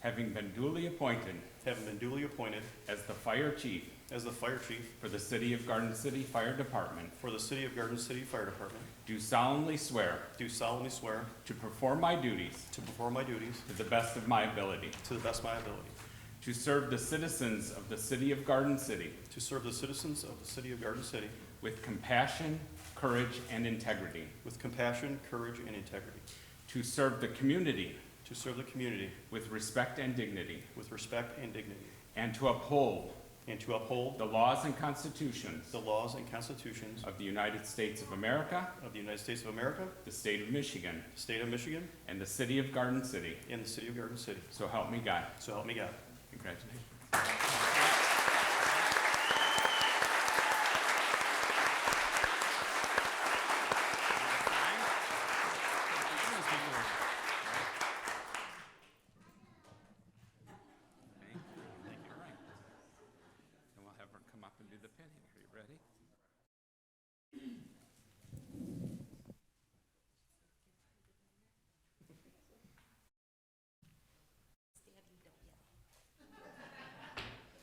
having been duly appointed having been duly appointed as the fire chief as the fire chief for the City of Garden City Fire Department, for the City of Garden City Fire Department, do solemnly swear do solemnly swear to perform my duties to perform my duties to the best of my ability, to the best of my ability, to serve the citizens of the City of Garden City to serve the citizens of the City of Garden City with compassion, courage, and integrity, with compassion, courage, and integrity, to serve the community to serve the community with respect and dignity, with respect and dignity, and to uphold and to uphold the laws and constitutions the laws and constitutions of the United States of America, of the United States of America, the State of Michigan, the State of Michigan, and the City of Garden City. and the City of Garden City. So help me God. So help me God. Congratulations. And we'll have her come up and do the pinning. Are you ready?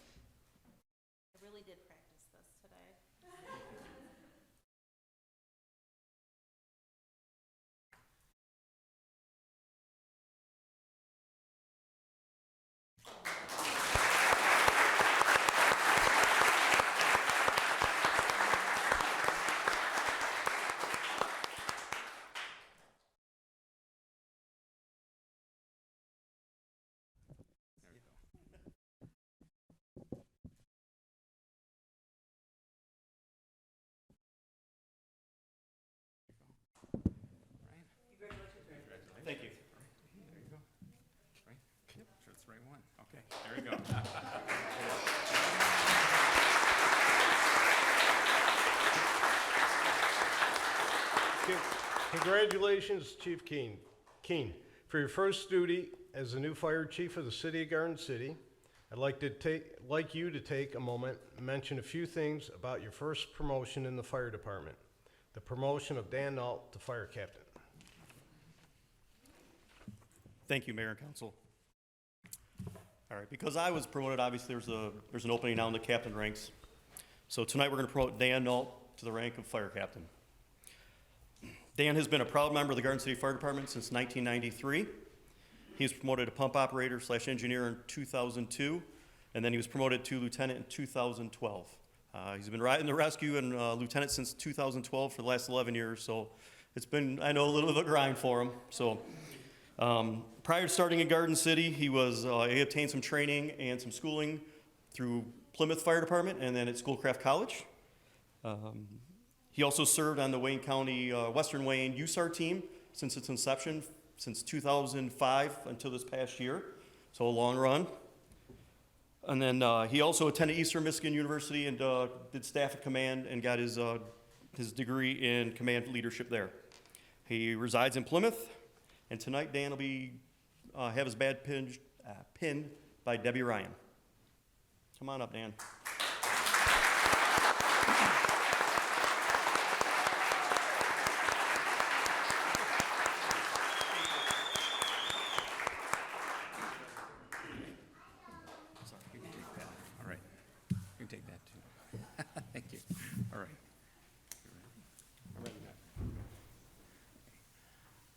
I really did practice this today. Thank you. There you go. Right? Yep, sure it's the right one. Okay, there we go. Congratulations, Chief Keen, Keen, for your first duty as the new fire chief of the city of Garden City. I'd like to take, like you to take a moment and mention a few things about your first promotion in the fire department. The promotion of Dan Nault to fire captain. Thank you, Mayor and Council. All right, because I was promoted, obviously, there's a, there's an opening now in the captain ranks. So tonight, we're going to promote Dan Nault to the rank of fire captain. Dan has been a proud member of the Garden City Fire Department since 1993. He was promoted to pump operator slash engineer in 2002, and then he was promoted to lieutenant in 2012. Uh, He's been riding the rescue and uh, lieutenant since 2012 for the last 11 years, so it's been, I know, a little bit of a grind for him, so. Um, prior to starting in Garden City, he was uh, he obtained some training and some schooling through Plymouth Fire Department and then at Schoolcraft College. Um, he also served on the Wayne County uh, Western Wayne USAR team since its inception, since 2005 until this past year, so a long run. And then uh, he also attended Eastern Michigan University and uh, did staff at command and got his uh, his degree in command leadership there. He resides in Plymouth, and tonight Dan will be, uh, have his badge pinned, uh, pinned by Debbie Ryan. Come on up, Dan. Sorry, you can take that. All right. You can take that too. Thank you. All right. You ready?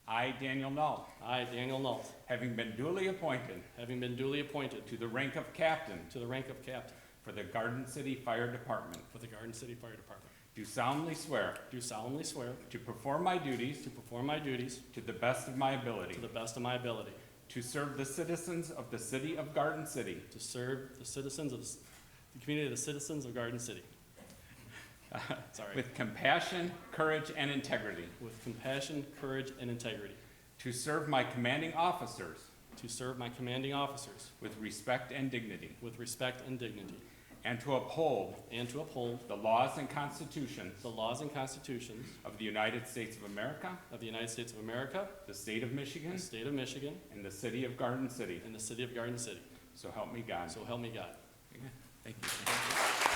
I, Daniel Null, I, Daniel Nault, having been duly appointed having been duly appointed to the rank of captain to the rank of captain for the Garden City Fire Department, for the Garden City Fire Department, do solemnly swear do solemnly swear to perform my duties to perform my duties to the best of my ability, to the best of my ability, to serve the citizens of the City of Garden City to serve the citizens of, the community of the citizens of Garden City. Sorry. with compassion, courage, and integrity, With compassion, courage, and integrity, to serve my commanding officers to serve my commanding officers with respect and dignity, with respect and dignity, and to uphold and to uphold the laws and constitutions the laws and constitutions of the United States of America, of the United States of America, the state of the Michigan, state of Michigan, and the city of Garden City. and the city of Garden City. So help me God. So help me God. Thank you.